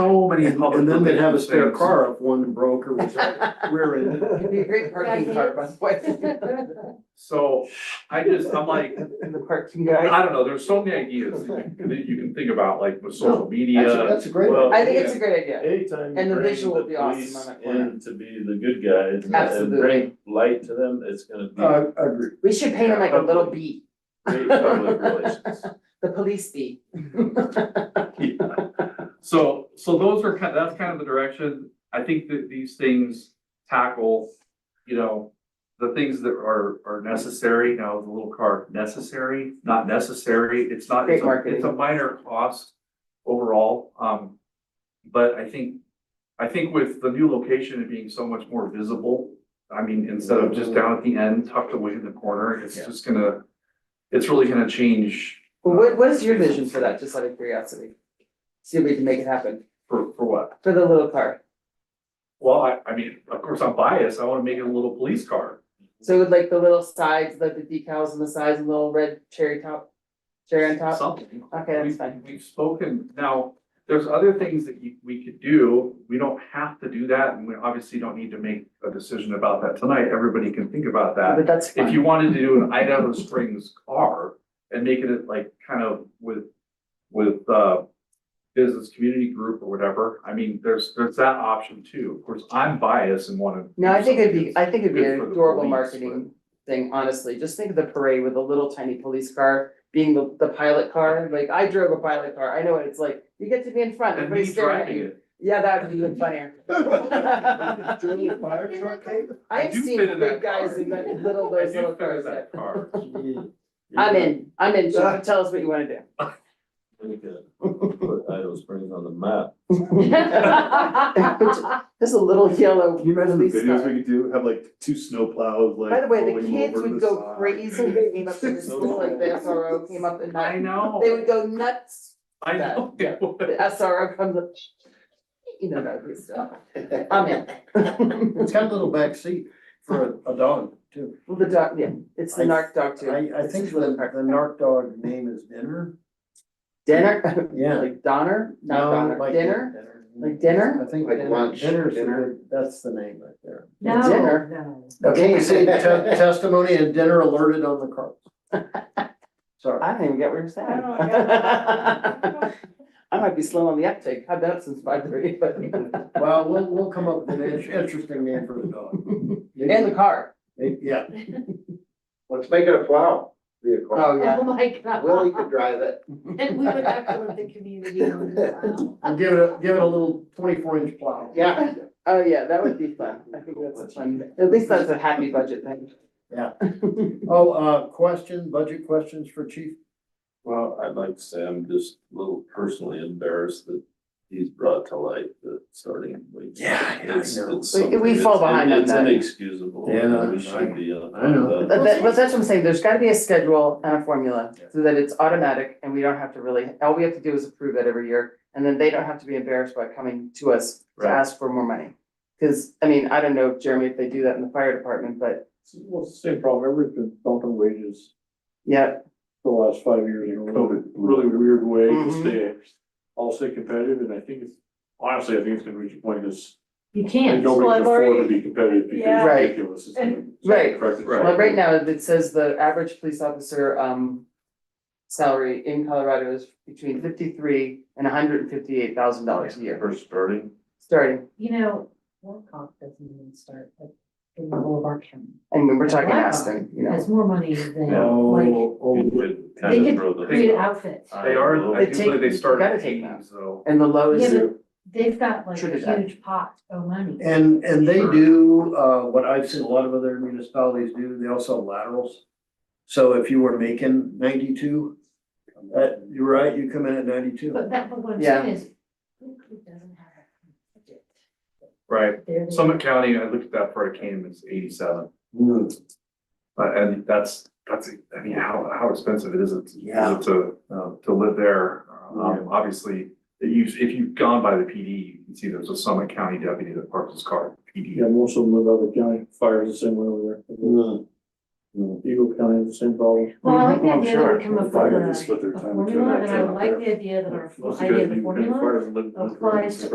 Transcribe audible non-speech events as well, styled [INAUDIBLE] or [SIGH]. be in public. And then they'd have a spare relations things. car if one broke or was [LAUGHS] rear ended. It'd be a great parking car, by the way. [LAUGHS] So I just, I'm like, And the parking I guy. don't know, there's so many ideas that you- that you can think about, like with No, social Actually, media. that's a great. Well, one. I think it's a great idea. Anytime And you the bring visual the would be awesome police on that corner. in to be the good guys and Absolutely. bring light to them, it's gonna be Uh, I agree. We should paint him like a little bee, great [LAUGHS] public relations. the police bee. So, so those are kind, that's kind of the direction. I think that these things tackle, you know, the things that are, are necessary, now the little car, necessary, not necessary, it's not, Great it's a, marketing. it's a minor cost overall, um. But I think, I think with the new location and being so much more visible, I mean, instead of just down at the end tucked away in the corner, it's Yeah. just gonna, it's really gonna change uh, Well, what, what is your vision for that, just out of curiosity? See if we can make it happen for, for what? for the little car. Well, I, I mean, of course, I'm biased. I wanna make it a little police car. So with like the little sides, like the decals on the sides and little red cherry top, cherry on top. Something. Okay, that's We've- fine. We've spoken, now, there's other things that you, we could do. We don't have to do that, and we obviously don't need to make a decision about that tonight. Everybody can think about that. But that's fine. If you wanted to do an Idaho Springs car and make it like kind of with, with, uh, business community group or whatever, I mean, there's, there's that option too. Of course, I'm biased and wanna. No, I think it'd do be, I think it'd be good an for the adorable police, marketing thing, honestly, just think of the parade with a little tiny police car being the, the pilot car, like, I drove a pilot car, I know what it's like, you get to be in front, something- And me everybody's staring at driving you. it. Yeah, that would be even [LAUGHS] funnier. [LAUGHS] Drill fire truck, eh? I have do seen fit in big that guys car. in that little, I those do little favor cars. that that- car. [LAUGHS] I'm in, I'm in, so Yeah. tell us what [LAUGHS] you wanna do. [LAUGHS] We could Put Idaho Springs on the map. Just a little yellow. Can you imagine the police videos car. we could do? Have like two snowplows, like. By the way, the rolling kids over would the go side. crazy, if they came [LAUGHS] up to the school, like the SRO came up [LAUGHS] and I knocked, know. they would go nuts I know. Yeah. The SRO comes up. You know, that good stuff. I'm in. It's got a little back seat for a, a dog too. Well, the dog, yeah, it's the I- narc dog too. I, I It's think just the, really hard. the narc dog name is Dinner. Dinner, Yeah. like Donner, not No, Donner, like- dinner, like dinner? I think Like dinner- lunch, Dinner's the dinner. good- that's the name right there. No, Dinner. Okay, you see, te- testimony and dinner alerted on the [LAUGHS] card. Sorry. I don't even get what you're saying. I don't know, [LAUGHS] I might be slow on the uptake, I've been up since five thirty, but, [LAUGHS] Well, we'll, we'll come up with an in- interesting name for the [LAUGHS] dog. in the Maybe- car. maybe- Yeah, Let's make it a plow vehicle. Oh, [LAUGHS] Oh yeah, my god. [LAUGHS] Willie could drive it. And we would have to live the community on this aisle. we'll give it, a give it a little twenty-four inch plow. Yeah. oh, yeah, that would be fun, I think that's a fun, at least that's a happy budget thing. Yeah. Oh, uh, question, budget questions for chief? Well, I'd like to say I'm just a little personally embarrassed that he's brought to light the starting wage. Yeah, yeah, I It's- know. it's We- we something- fall it's- behind on It's that. inexcusable. Yeah, We I- should be. on I know. that. But that, but that's what I'm saying, there's gotta be a schedule and a formula, so that it's automatic and we don't have to really, all we have to do is approve it every year. And then they don't have to be embarrassed by coming to us to Right. ask for more money. Cause, I mean, I don't know, Jeremy, if they do that in the fire department, but Well, it's the same problem, everybody's been bumping wages yeah, the last five years in a really, really weird way to Mm-hmm. Mhm. stay, I'll stay competitive, and I think it's, honestly, I think it's gonna reach a point that's. You can't. Nobody Well, can I've afford to already- be competitive because Yeah. it's Right. ridiculous. It's And- gonna- Right. Correct. Right. well, right now it says the average police officer, um. Salary in Colorado is between fifty-three and hundred and fifty-eight thousand dollars a year, First starting. starting, You know, Warcock doesn't even start at the level of our county. and when we're talking Wow. Aspen, you know. Has more money than like, Oh, You oh, could they kind of throw could create the. outfits. They are, I They do take- believe they you started gotta at take eighty, that. so. And the low is, Yeah, but they've got like a Trinidad. huge pot of money. And, and they do, uh, what I've seen a lot of other municipalities do, they also have laterals. So if you were making ninety-two, uh, you're right, you come in at ninety-two. But that, but what I'm Yeah. saying is, Warcock doesn't have a budget. Right, They're the- Summit County, I looked at that before I came, it's eighty-seven, Hmm. but, and that's, that's, I mean, how, how expensive it is it? is Yeah. it To, uh, to live there, Yeah. um, obviously, that you, if you've gone by the PD, you can see there's a Summit County deputy that parks his car, at Yeah, PD. most of them live out of the county, fires the same way over Mm. there, Eagle County, has the same problem. Well, I like the Mhm, I'm idea that sure. we come up with Fire a just with their a time to formula, it and I out like there. the idea that our idea of the formula applies to